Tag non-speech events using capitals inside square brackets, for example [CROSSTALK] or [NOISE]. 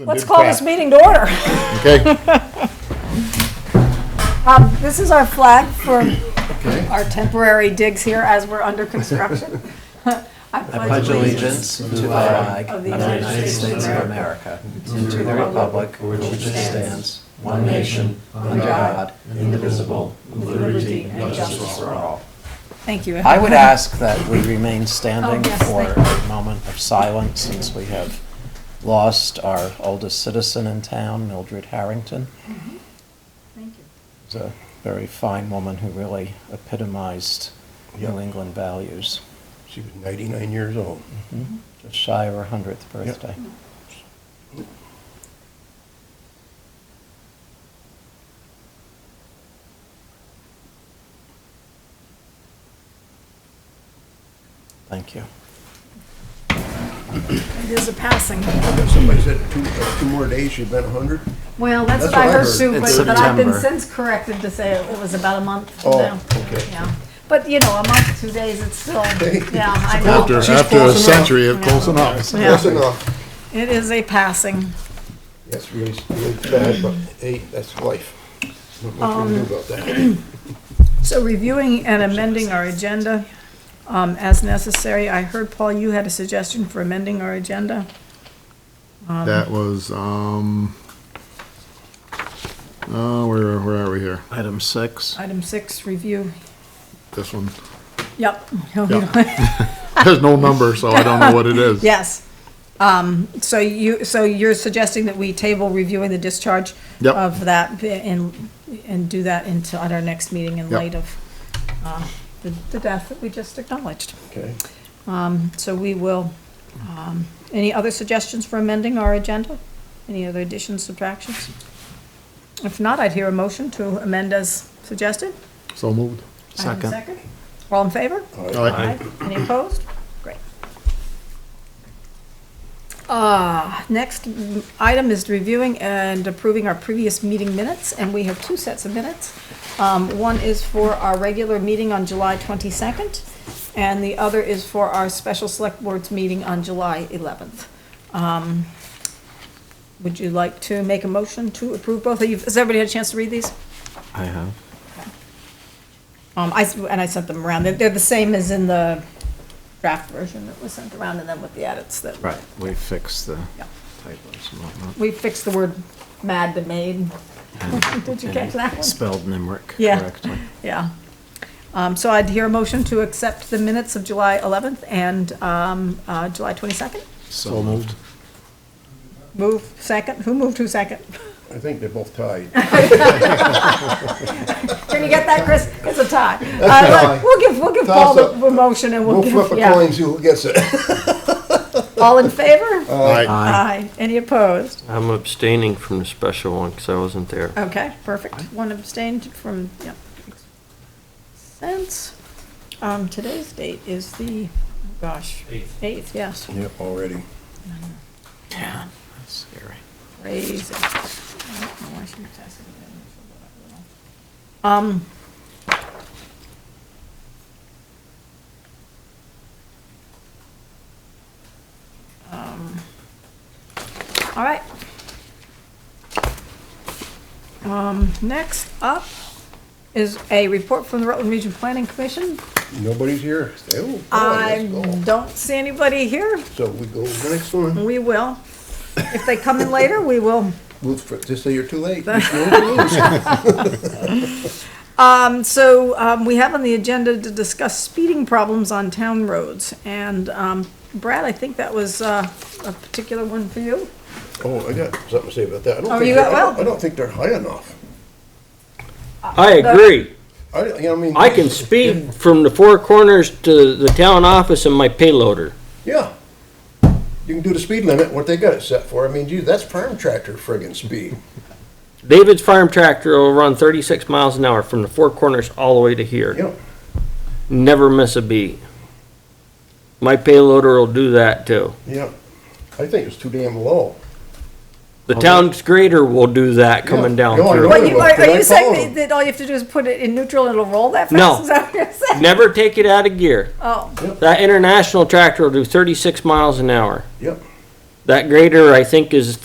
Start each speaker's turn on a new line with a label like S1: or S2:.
S1: Let's call this meeting to order.
S2: Okay,
S1: [LAUGHS] Um, This is our flag for
S2: Okay.
S1: our temporary digs here as we're under construction. I
S3: pledge allegiance to the flag
S1: of
S3: of
S1: the
S3: the
S1: United
S3: United
S1: States
S3: States
S1: of
S3: of America and to the republic for which it stands, one nation, under God, indivisible, with liberty and justice for all.
S1: Thank you.
S3: I would ask that we remain
S1: Oh,
S3: standing
S1: yes,
S3: for
S1: thank
S3: a moment of silence since we have lost our oldest citizen in town, Mildred Harrington.
S1: Thank you.
S3: She's a very fine woman who really epitomized New England values. Hmm?
S2: she was 99 years old.
S3: Just shy of her 100th birthday. Thank you.
S1: It is a passing.
S2: Somebody said two, uh, two more days, she'd been 100?
S1: Well, that's
S2: That's
S1: what I
S2: what I
S1: heard
S2: heard.
S1: too,
S3: It's
S1: but but I've been
S3: September.
S1: since corrected to say it was about a month from
S2: Oh,
S1: now.
S2: okay.
S1: Yeah. But, you know, a month, two days, it's still, yeah, I
S4: After,
S1: know.
S2: She's
S4: after
S2: close
S4: a
S2: enough.
S4: century, it's close enough.
S1: Yeah.
S2: Close enough.
S1: It is a passing.
S2: Yes, really, really bad, but hey, that's life. Not much
S1: Um,
S2: we can do about that.
S1: So reviewing and amending our agenda um, as necessary. I heard, Paul, you had a suggestion for amending our agenda.
S4: That was, um, uh, where, where are we here?
S3: Item six.
S1: Item six, review.
S4: This one. [LAUGHS]
S1: Yep.
S4: There's no number, so I don't know what it
S1: [LAUGHS]
S4: is.
S1: Yes. Um, So you, so you're suggesting that we table reviewing the discharge
S4: Yep.
S1: of that and, and do that until, at our next meeting in
S4: Yep.
S1: light of uh, the the death that we just acknowledged.
S2: Okay.
S1: So we will, um, any other suggestions for amending our agenda? Any other additions, subtractions? If not, I'd hear a motion to amend as suggested.
S4: So moved.
S1: Item
S3: Second.
S1: All in favor?
S4: All
S1: Aye.
S4: right.
S1: Any opposed? Great. Uh, next mm, item is reviewing and approving our previous meeting minutes, and we have two sets of minutes. Um, one is for our regular meeting on July twenty-second, and the other is for our special select boards meeting on July eleventh. Um, would you like to make a motion to approve both of you? Has everybody had a chance to read these?
S3: I have.
S1: Um, I, s- and I sent them around. They're, they're the same as in the draft version that was sent around and then with the edits that.
S3: Right, we fixed the
S1: Yeah.
S3: typos and whatnot.
S1: We fixed the word mad to made. [LAUGHS] Did you catch that one?
S3: Spelled Nimric
S1: Yeah.
S3: correctly.
S1: Yeah. Um, so I'd hear a motion to accept the minutes of July eleventh and, um, uh, July twenty-second.
S3: So moved.
S1: Move second. Who moved who second?
S2: [LAUGHS] I think they're both tied.
S1: Can you get that, Chris? It's a tie. Uh,
S2: tie.
S1: We'll give, we'll give Paul
S2: Toss
S1: the
S2: up.
S1: the motion and [LAUGHS] we'll
S2: We'll flip
S1: give,
S2: a
S1: yeah.
S2: coin, see who gets it.
S1: All in favor?
S4: All right.
S1: Aye. Any opposed?
S5: I'm abstaining from the special one because I wasn't there.
S1: Okay, perfect. One abstained from, yep. makes Sense. Um, today's date is the, oh gosh. Eighth. Eighth,
S2: [LAUGHS]
S1: yes,
S2: Yep, already.
S3: Yeah, that's scary.
S1: crazy. I don't know why she was asking me that. Um. um, All right. Um, next up is a report from the Rutland Region Planning Commission.
S2: Nobody's here. Say, oh, boy,
S1: I
S2: let's go.
S1: don't see anybody here.
S2: So we go to the next one.
S1: We will. If they come in later, we will.
S2: Well, for- Just say you're too
S1: [LAUGHS]
S2: late. There's no rules.
S1: Um, so, um, we have on the agenda to discuss speeding problems on town roads. And, um, Brad, I think that was, uh, a particular one for you.
S2: Oh, I got something to say about that. I don't
S1: Oh,
S2: think
S1: you
S2: they're-
S1: got-
S2: I don't-
S1: well-
S2: I don't think they're high enough.
S5: I agree.
S2: I, you know, I mean.
S5: I can speed from the four corners to the town office in my payloader.
S2: Yeah. You can do the speed limit, what they got it set for. I mean, gee, that's farm tractor friggin' speed.
S5: David's farm tractor will run thirty-six miles an hour from the four corners all the way to here.
S2: Yeah,
S5: Never miss a beat. My payloader will do that too.
S2: yeah. I think it's too damn low.
S5: The town's grader will do that coming down
S2: No, I
S5: through.
S2: know.
S1: But you, are, are
S2: Did I
S1: you
S2: follow
S1: saying that,
S2: him?
S1: that all you have to do is put it in neutral and it'll roll that fast?
S5: No.
S1: Is that what you're
S5: [LAUGHS]
S1: saying?
S5: Never take it out of gear.
S1: Oh,
S5: That international tractor will do thirty-six miles an hour.
S2: Yep.
S5: That grader, I think, is